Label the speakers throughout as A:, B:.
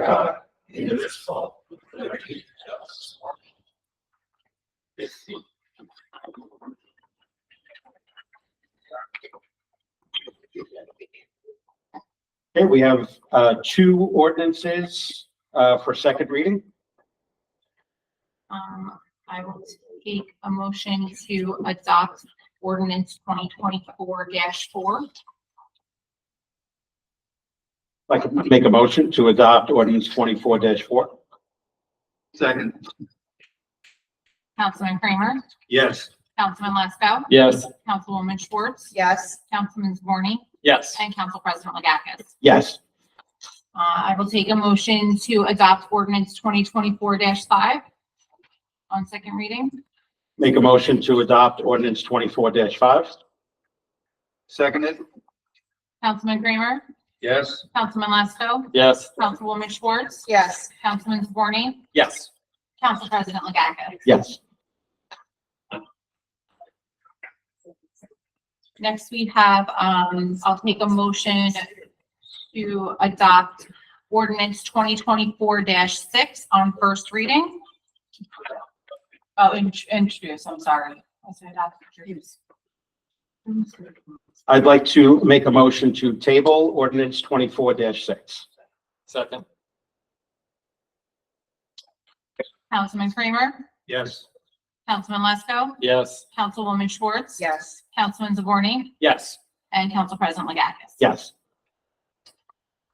A: God, in this fall, liberty and justice for all.
B: Okay, we have uh, two ordinances uh, for second reading.
C: Um, I will take a motion to adopt ordinance twenty twenty-four four.
B: I'd Like to make a motion to adopt ordinance twenty-four four.
A: Second,
C: Councilman Kramer,
B: Yes.
C: Councilman Lasco,
B: Yes.
C: Councilwoman Schwartz,
D: Yes.
C: Councilman Zaborni,
B: Yes.
C: and Council President Legakis.
B: Yes.
C: Uh, I will take a motion to adopt ordinance twenty twenty-four five on second reading.
B: Make a motion to adopt ordinance twenty-four five.
A: seconded,
C: Councilman Kramer,
A: yes,
C: Councilman Lasco,
B: Yes.
C: Councilwoman Schwartz,
D: Yes.
C: Councilman Zaborni,
B: Yes.
C: Council President Legakis.
B: Yes.
C: Next, we have, um, I'll take a motion to adopt ordinance twenty twenty-four six on first reading. Oh, int- introduce, I'm sorry. I said adopt, introduce.
B: I'd like to make a motion to table ordinance twenty-four six.
E: Second,
C: Councilman Kramer,
B: Yes.
C: Councilman Lesko,
E: yes,
C: Councilwoman Schwartz.
D: Yes.
C: Councilman Zaborni,
B: Yes.
C: and Council President Legakis.
B: Yes.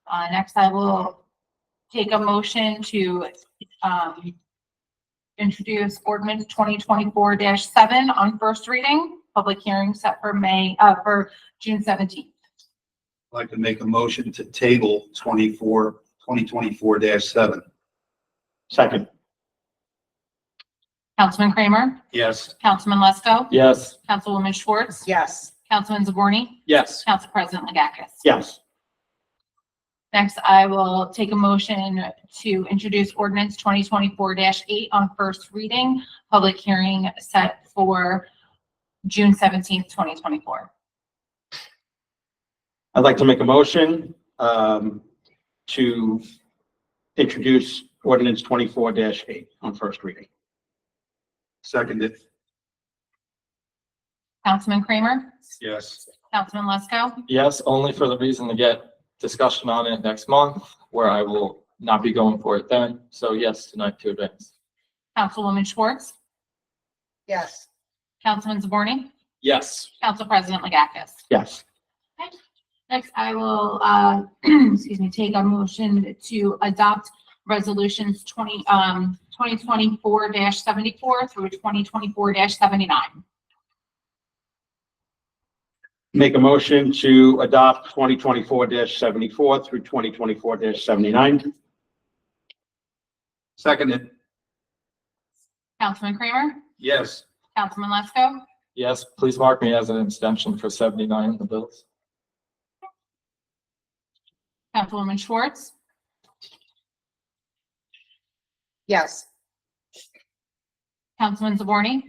C: Uh, next I will take a motion to, um, introduce ordinance twenty twenty-four seven on first reading, public hearing set for May, uh, for June seventeenth.
A: I'd like to make a motion to table 24 2024 seven.
B: Second.
C: Councilman Kramer,
B: Yes.
C: Councilman Lesko,
E: yes,
C: Councilwoman Schwartz,
D: Yes.
C: Councilman Zaborni,
B: Yes.
C: Council President Legakis.
B: Yes.
C: Next, I will take a motion to introduce ordinance twenty twenty-four eight on first reading, public hearing set for June seventeenth, twenty twenty-four.
B: I'd like to make a motion um, to introduce ordinance twenty-four eight on first reading.
A: Seconded,
C: Councilman Kramer?
A: yes,
C: Councilman Lesko?
E: yes, only for the reason to get discussion on it next month, where I will not be going for it then. So yes, tonight to advance.
C: Councilwoman Schwartz?
D: Yes.
C: Councilman Zaborni?
E: Yes,
C: Council President Legakis?
B: Yes.
C: Next, I will, uh, excuse me, take a motion to adopt resolutions twenty, um, twenty twenty-four seventy-four through twenty twenty-four seventy-nine.
B: Make a motion to adopt twenty twenty-four seventy-four through twenty twenty-four seventy-nine.
A: seconded,
C: Councilman Kramer?
A: yes,
C: Councilman Lesko?
E: yes, please mark me as an abstention for seventy-nine in the bills.
C: Councilwoman Schwartz?
D: Yes.
C: Councilman Zaborni?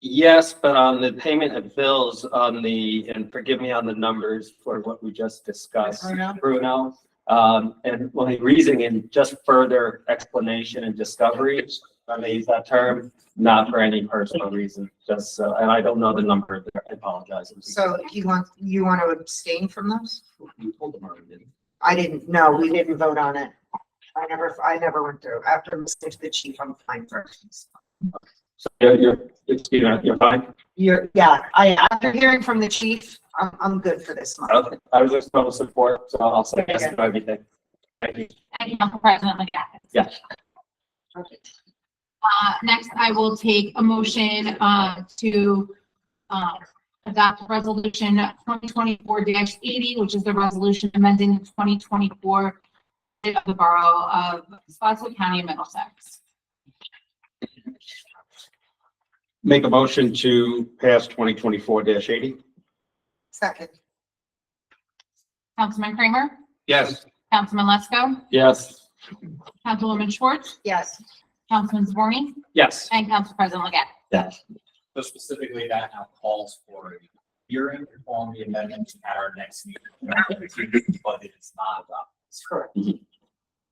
F: Yes, but on the payment of bills on the, and forgive me on the numbers for what we just discussed,
D: Bruno?
F: Bruno. Um, and my reasoning and just further explanation and discovery, I may use that term, not for any personal reason, just, uh, and I don't know the number, there. I apologize.
D: So you want, you want to abstain from those?
F: You told them already, didn't you?
D: I didn't, no, we didn't vote on it. I never, I never went through. After listening to the chief, I'm fine first.
B: So you're, you're, excuse me, you're fine?
D: You're, yeah, I, after hearing from the chief, I'm, I'm good for this month.
F: Okay, I was just total support, so I'll say yes to everything. Thank you.
C: And Council President Legakis?
F: Yes.
C: Uh, next, I will take a motion, uh, to, uh, adopt resolution twenty twenty-four eighty, which is the resolution amending twenty twenty-four of the Borough of Spotswood County, Middlesex.
B: Make a motion to pass twenty twenty-four eighty.
D: Second.
C: Councilman Kramer?
A: yes,
C: Councilman Lesko?
E: Yes,
C: Councilwoman Schwartz?
D: Yes.
C: Councilman Zaborni?
B: Yes.
C: And Council President Legakis?
B: Yes.
G: So specifically, that now calls for a hearing on the amendment at our next meeting. But it is not adopted.
D: Correct.